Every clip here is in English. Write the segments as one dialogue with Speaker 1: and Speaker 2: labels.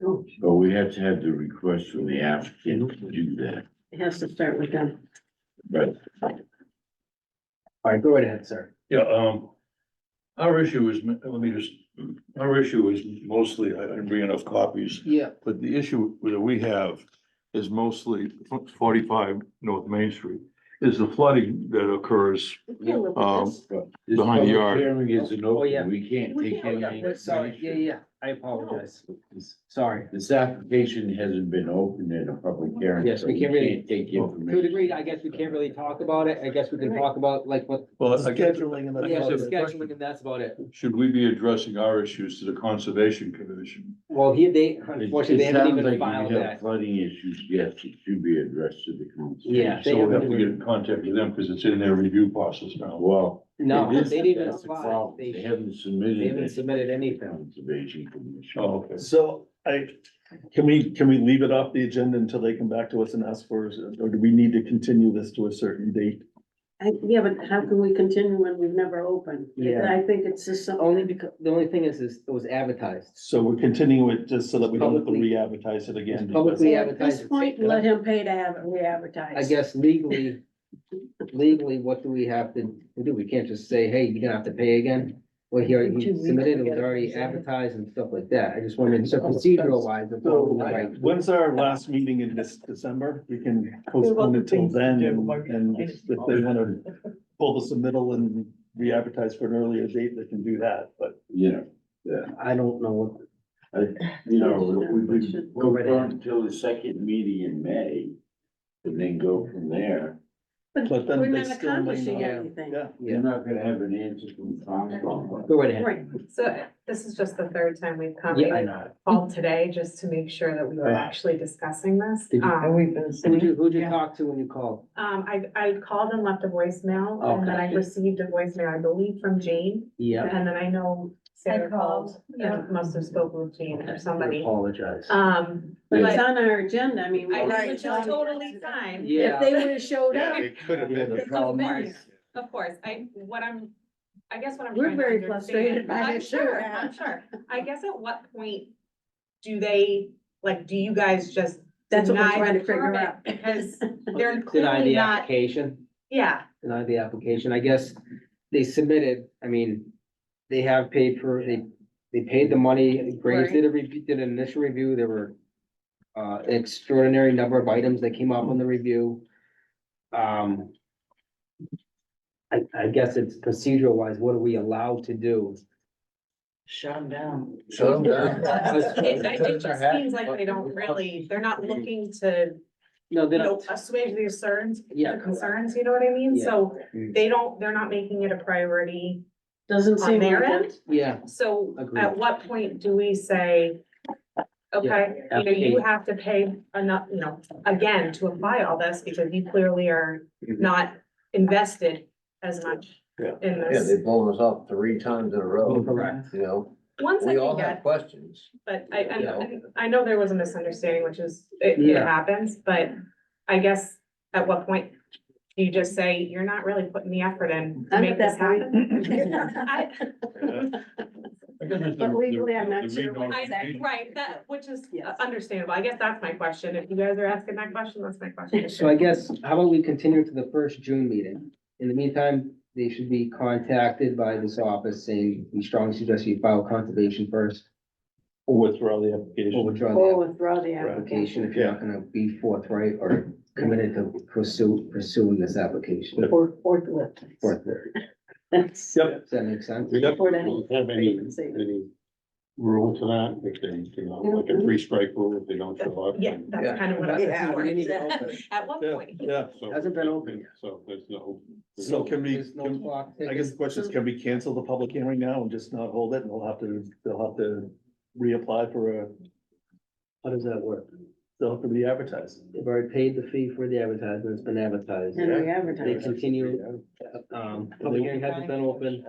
Speaker 1: vote.
Speaker 2: But Um, we have to have the request from the applicant to do that,
Speaker 1: It has to start with them.
Speaker 2: but
Speaker 3: All right, go right ahead, sir.
Speaker 4: Yeah, um, our issue is, let me just, our issue is mostly, I didn't bring enough copies,
Speaker 3: Yeah.
Speaker 4: but the issue that we have is mostly forty-five North Main Street, is the flooding that occurs. Um,
Speaker 2: this
Speaker 4: Behind the
Speaker 2: public
Speaker 4: yard.
Speaker 2: Hearing isn't
Speaker 3: Oh, yeah.
Speaker 2: open, we can't
Speaker 1: We
Speaker 2: take
Speaker 1: can't,
Speaker 2: any.
Speaker 1: yeah,
Speaker 3: We're Sorry, yeah,
Speaker 2: information.
Speaker 3: yeah, I apologize. Sorry.
Speaker 2: This application hasn't been opened in a public hearing.
Speaker 3: Yes,
Speaker 2: so
Speaker 3: we can't really-
Speaker 2: Take
Speaker 3: To a
Speaker 2: information.
Speaker 3: degree, I guess we can't really talk about it. I guess we can talk about like what,
Speaker 4: Well, I guess,
Speaker 5: Scheduling and
Speaker 3: yeah,
Speaker 4: I guess
Speaker 5: the.
Speaker 4: if-
Speaker 3: scheduling and that's about it.
Speaker 4: should we be addressing our issues to the Conservation Commission?
Speaker 3: Well, here they,
Speaker 2: It-
Speaker 3: unfortunately, they
Speaker 2: it
Speaker 3: haven't
Speaker 2: sounds like
Speaker 3: even
Speaker 2: if
Speaker 3: filed
Speaker 2: you have
Speaker 3: that.
Speaker 2: Flooding issues, yes, it should be addressed to the council.
Speaker 3: Yeah, they
Speaker 4: So we have
Speaker 3: haven't
Speaker 4: to get
Speaker 3: even,
Speaker 4: in contact with them, because it's in their review process now.
Speaker 2: Well.
Speaker 3: no,
Speaker 2: it is-
Speaker 3: they didn't
Speaker 2: that's the
Speaker 3: apply.
Speaker 2: problem.
Speaker 3: They,
Speaker 2: They
Speaker 3: they
Speaker 2: haven't submitted.
Speaker 3: haven't
Speaker 2: it.
Speaker 3: submitted anything.
Speaker 2: Conservation Commission.
Speaker 4: Oh, okay.
Speaker 5: So I, can we, can we leave it off the agenda until they come back to us and ask for, us, or do we need to continue this to a certain date?
Speaker 1: Yeah, but how can we continue when we've never opened?
Speaker 3: Yeah.
Speaker 1: I think it's just something.
Speaker 3: Only because, the only thing is, is it was advertised.
Speaker 5: So we're continuing it just so that we don't have to
Speaker 3: Publicly-
Speaker 5: re-advertise it again.
Speaker 3: It's publicly-
Speaker 5: because-
Speaker 1: So
Speaker 3: we
Speaker 1: At
Speaker 3: advertise
Speaker 1: this
Speaker 3: it,
Speaker 1: point,
Speaker 3: yeah.
Speaker 1: let him pay to have it re-advertised.
Speaker 3: I guess legally, legally, what do we have to do? We can't just say, hey, you're gonna have to pay again. Well, here,
Speaker 6: In two
Speaker 3: you
Speaker 6: weeks,
Speaker 3: submitted, it
Speaker 6: we
Speaker 3: was
Speaker 6: gotta
Speaker 3: already
Speaker 6: present it.
Speaker 3: advertised and stuff like that. I just wanted, so procedural wise. if
Speaker 5: So,
Speaker 3: we're right.
Speaker 5: when's our last meeting in this December? We can postpone it till then and, and if they wanna pull the submittal and re-advertise for an earlier date, they can do that, but.
Speaker 2: You know,
Speaker 3: I don't know what,
Speaker 2: you know, if we could
Speaker 3: Go
Speaker 2: go
Speaker 3: right
Speaker 2: on
Speaker 3: ahead.
Speaker 2: until the second meeting in May and then go from there.
Speaker 5: but then
Speaker 1: We're
Speaker 5: they
Speaker 1: not
Speaker 5: still may
Speaker 1: accomplishing
Speaker 5: not-
Speaker 1: anything.
Speaker 5: Yeah,
Speaker 2: You're not gonna have an answer from Concom.
Speaker 3: go right ahead.
Speaker 1: Right,
Speaker 7: So this is just the third time we've come,
Speaker 3: Yeah, I
Speaker 7: we
Speaker 3: know.
Speaker 7: called today just to make sure that we were actually discussing this.
Speaker 3: Did you-
Speaker 6: And
Speaker 7: Um,
Speaker 6: we've been
Speaker 3: Who'd
Speaker 6: sitting,
Speaker 3: you, who'd you
Speaker 6: Yeah.
Speaker 3: talk to when you called?
Speaker 7: um, I, I called and left a voicemail and then I
Speaker 3: Okay.
Speaker 7: received a voicemail, I believe, from Jane.
Speaker 3: Yeah.
Speaker 7: And then I know
Speaker 6: I
Speaker 7: Sarah
Speaker 6: called,
Speaker 7: called
Speaker 6: yeah.
Speaker 7: and must have spoken with Jane or somebody.
Speaker 3: Apologize.
Speaker 7: Um,
Speaker 1: but it's
Speaker 7: But-
Speaker 1: on our agenda, I mean. we-
Speaker 7: I know,
Speaker 6: Right.
Speaker 7: which is totally fine,
Speaker 1: If
Speaker 3: Yeah,
Speaker 1: they would have showed up,
Speaker 2: it could have
Speaker 5: been the
Speaker 7: problem is- of course. I, what I'm, I guess what I'm
Speaker 1: We're
Speaker 7: trying to
Speaker 1: very frustrated
Speaker 7: understand.
Speaker 1: by
Speaker 7: I'm
Speaker 6: it,
Speaker 7: sure,
Speaker 6: sure.
Speaker 7: I'm sure. I guess at what point do they, like, do you guys just
Speaker 1: that's what we're
Speaker 7: deny
Speaker 1: trying to
Speaker 7: the
Speaker 1: figure
Speaker 7: permit
Speaker 1: out.
Speaker 7: Because
Speaker 3: deny
Speaker 7: they're clearly
Speaker 3: the
Speaker 7: not,
Speaker 3: application,
Speaker 7: yeah,
Speaker 3: deny the application, I guess they submitted, I mean, they have paid for, they, they paid the money, Graves did a review, did an initial review, there were uh, extraordinary number of items that came up on the review. Um, I, I guess it's procedural wise, what are we allowed to do?
Speaker 6: shut them down.
Speaker 2: Shut 'em down.
Speaker 7: it, it just seems like they don't really, they're not looking to,
Speaker 3: No,
Speaker 7: you
Speaker 3: they
Speaker 7: know,
Speaker 3: don't,
Speaker 7: assuage their concerns,
Speaker 3: yeah.
Speaker 7: their concerns, you know what I mean?
Speaker 3: Yeah.
Speaker 7: So
Speaker 3: Mm.
Speaker 7: they don't, they're not making it a priority
Speaker 1: Doesn't
Speaker 7: on
Speaker 1: seem
Speaker 7: their
Speaker 1: like it.
Speaker 7: end.
Speaker 3: Yeah,
Speaker 7: So
Speaker 3: Agreed.
Speaker 7: at what point do we say, okay, you know,
Speaker 3: application.
Speaker 7: you have to pay enough, you know, again, to apply all this because you clearly are
Speaker 3: Mhm.
Speaker 7: not invested as much
Speaker 5: Yeah.
Speaker 7: in
Speaker 8: Yeah,
Speaker 7: this.
Speaker 8: they've blown us up three times in a row,
Speaker 3: correct,
Speaker 8: you know,
Speaker 7: Once I
Speaker 8: we all
Speaker 7: can get
Speaker 8: have questions.
Speaker 7: But I, I,
Speaker 8: Yeah.
Speaker 7: I- I know there was a misunderstanding, which is, it, it
Speaker 3: Yeah.
Speaker 7: happens, but I guess at what point do you just say, you're not really putting the effort in to
Speaker 1: I'm
Speaker 7: make
Speaker 1: at
Speaker 7: this
Speaker 1: that point.
Speaker 7: happen? I,
Speaker 1: But legally, I'm not sure what
Speaker 7: I, right, that, which is
Speaker 1: Yes.
Speaker 7: understandable. I guess that's my question. If you guys are asking that question, that's my question.
Speaker 3: so I guess, how about we continue to the first June meeting? In the meantime, they should be contacted by this office saying, we strongly suggest you file conservation first,
Speaker 5: or withdraw the
Speaker 3: or
Speaker 5: application.
Speaker 3: withdraw
Speaker 1: Or
Speaker 7: Oh,
Speaker 3: the
Speaker 1: withdraw the application,
Speaker 3: application if you're not gonna be forthright or committed to pursue, pursuing this application.
Speaker 1: or forklift.
Speaker 3: Forthright.
Speaker 1: That's.
Speaker 5: Yep.
Speaker 3: Does that make sense?
Speaker 4: We
Speaker 1: Or that-
Speaker 4: have any, any rule to that, if they, you know, like a three strike rule, if they don't show up.
Speaker 7: Yeah,
Speaker 8: Yeah.
Speaker 7: that's kind of what I
Speaker 6: Yeah.
Speaker 3: We didn't
Speaker 7: was
Speaker 3: even
Speaker 7: for.
Speaker 3: open.
Speaker 7: At what
Speaker 5: Yeah,
Speaker 7: point?
Speaker 5: yeah.
Speaker 4: So-
Speaker 3: Hasn't been open yet.
Speaker 4: So there's no. there's
Speaker 5: So
Speaker 4: no-
Speaker 5: can we,
Speaker 3: There's no
Speaker 5: can-
Speaker 3: clock
Speaker 5: I guess the question is, can we cancel the public hearing now and just not hold it and we'll have to, they'll have to reapply for a,
Speaker 3: How does that work?
Speaker 5: they'll have to re-advertise.
Speaker 3: They've already paid the fee for the advertisement, it's been advertised.
Speaker 1: And we
Speaker 3: They
Speaker 1: advertise.
Speaker 3: continue, um, public hearing hasn't been open,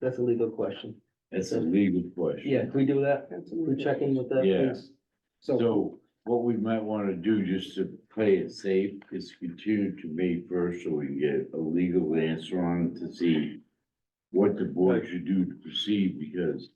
Speaker 3: that's a legal question.
Speaker 2: That's a legal question.
Speaker 3: Yeah, can we do that? We're
Speaker 1: Absolutely.
Speaker 3: checking with that,
Speaker 2: Yeah.
Speaker 3: please. So,
Speaker 2: So what we might wanna do, just to play it safe, is continue to May first, so we can get a legal answer on it to see what the board should do to proceed, because